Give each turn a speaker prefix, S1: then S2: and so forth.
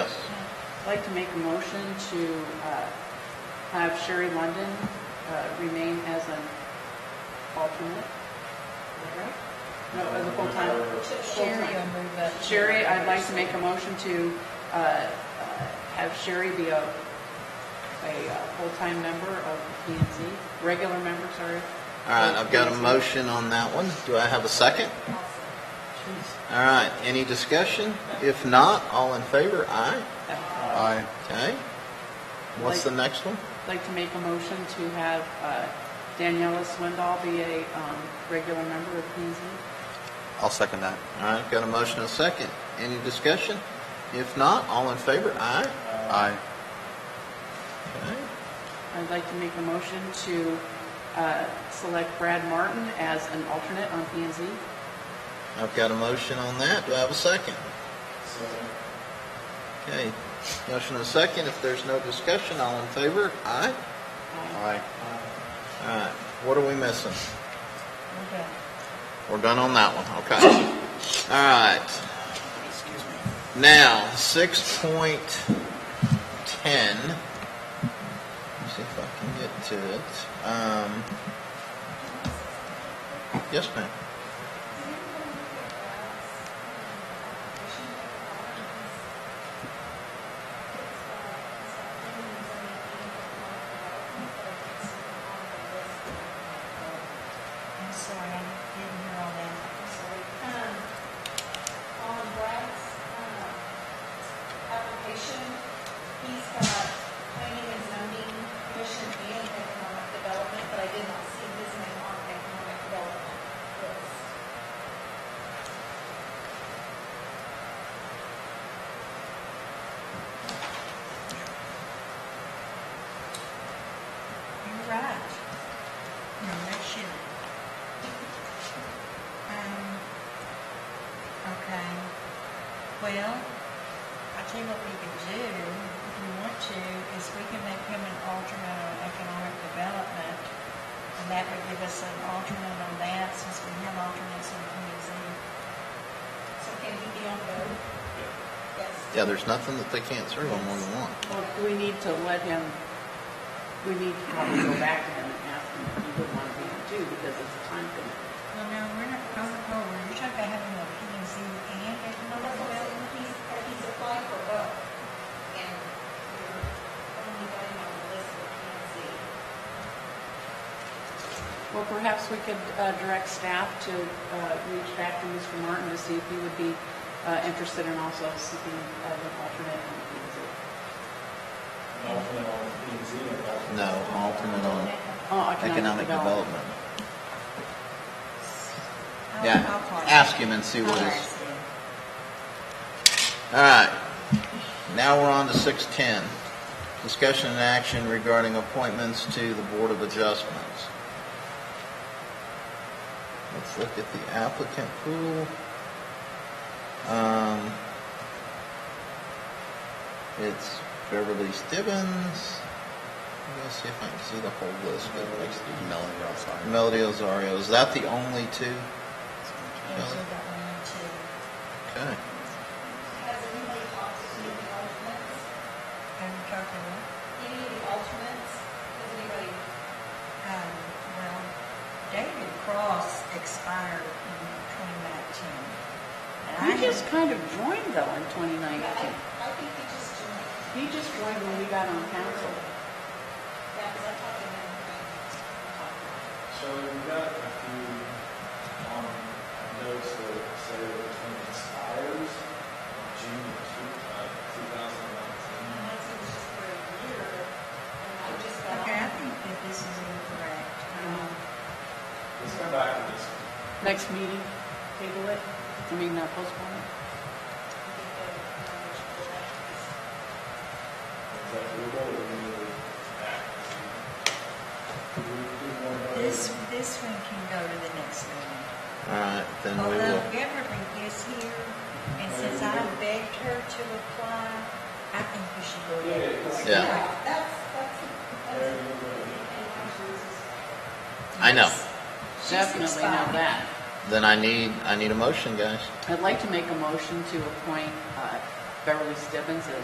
S1: I'd like to make a motion to uh, have Sherry London uh, remain as an alternate. Is that right? No, as a full-time.
S2: Sherry will move that.
S1: Sherry, I'd like to make a motion to uh, uh, have Sherry be a, a uh, full-time member of P and Z, regular member, sorry.
S3: All right, I've got a motion on that one. Do I have a second? All right, any discussion? If not, all in favor, aye.
S1: I'd
S3: Aye. Okay. What's the next one?
S1: like to make a motion to have uh, Daniela Swindoll be a um, regular member of P and Z.
S3: I'll second that. All right, got a motion and a second. Any discussion? If not, all in favor, aye. Aye.
S1: I'd like to make a motion to uh, select Brad Martin as an alternate on P and Z.
S3: I've got a motion on that. Do I have a second? Okay, motion and a second. If there's no discussion, all in favor, aye. Aye. All right, what are we missing?
S2: Okay.
S3: We're done on that one, okay. All right. Now, six point ten. See if I can get to it. Um, Uh, yes, ma'am.
S2: I'm sorry, I didn't hear all that.
S4: Um, On Brad's um, application, he's got planning and zoning commission and economic development, but I did not see his name on the economic development list.
S2: You're right. No, that's you. Um, okay. Well, I tell you what we could do, if you want to, is we can make him an alternate on economic development. And that would give us an alternate on that, since we have alternates on PZ.
S4: So can he be on both? Yes.
S3: Yeah, there's nothing that they can't serve on more than one.
S1: Well, we need to let him, we need to probably go back to him and ask him if he would want to be on two because it's a time commitment.
S2: Well, no, we're not going forward. You're talking about having a PZ and economic
S4: Well,
S2: development?
S4: He's, he's applied for both, and you're only got him on the list for PNC.
S1: Well, perhaps we could uh, direct staff to uh, reach back to Mr. Martin to see if he would be uh, interested in also seeking uh, an alternate on P and Z.
S3: Oh,
S5: alternate on P and Z and alternate.
S3: No, alternate on
S1: Oh,
S3: economic development.
S2: I'll-
S3: Yeah,
S2: I'll call
S3: ask him and see what
S2: I'll
S3: his-
S2: ask him.
S3: All right, now we're on to six ten. Discussion and action regarding appointments to the Board of Adjustments. Let's look at the applicant pool. Um, it's Beverly Stibbins. Let's see if I can see the whole list, but it makes the Melody Ozario. Is that the only two?
S2: Yeah, so that one and two.
S3: Okay.
S4: Has anybody talked to any of the alternates?
S2: And we're talking about,
S4: Any of the alternates? Has anybody?
S2: um, well, David Cross expired in 2019.
S1: You
S2: And I
S1: just
S2: had-
S1: kind of joined though in 2019.
S4: I, I think they just joined.
S1: He just joined when we got on council.
S4: Yeah, because I talked to them.
S5: So we've got a few, um, notes that say that the term expires on June of two, uh, two thousand nineteen.
S4: And that's it was just for a year, and I just got
S2: Okay, I
S4: on.
S2: think that this is incorrect.
S1: Uh-huh.
S2: Um,
S5: Let's come back to this.
S1: Next meeting, table it, I mean, uh, postpone it.
S4: I think the um, numbers were right.
S5: Is that doable or we need to act? Do we do one more?
S2: This, this one can go to the next meeting.
S3: All right, then we
S2: Although
S3: will.
S2: Beverly is here, and since I begged her to apply, I think we should go ahead. and
S5: Yeah,
S2: appoint
S3: Yeah.
S2: her.
S4: That's, that's,
S5: There
S4: that's.
S5: you go.
S4: And I'm
S3: I know.
S2: She's
S1: Definitely know
S2: expired.
S1: that.
S3: Then I need, I need a motion, guys.
S1: I'd like to make a motion to appoint uh, Beverly Stibbins as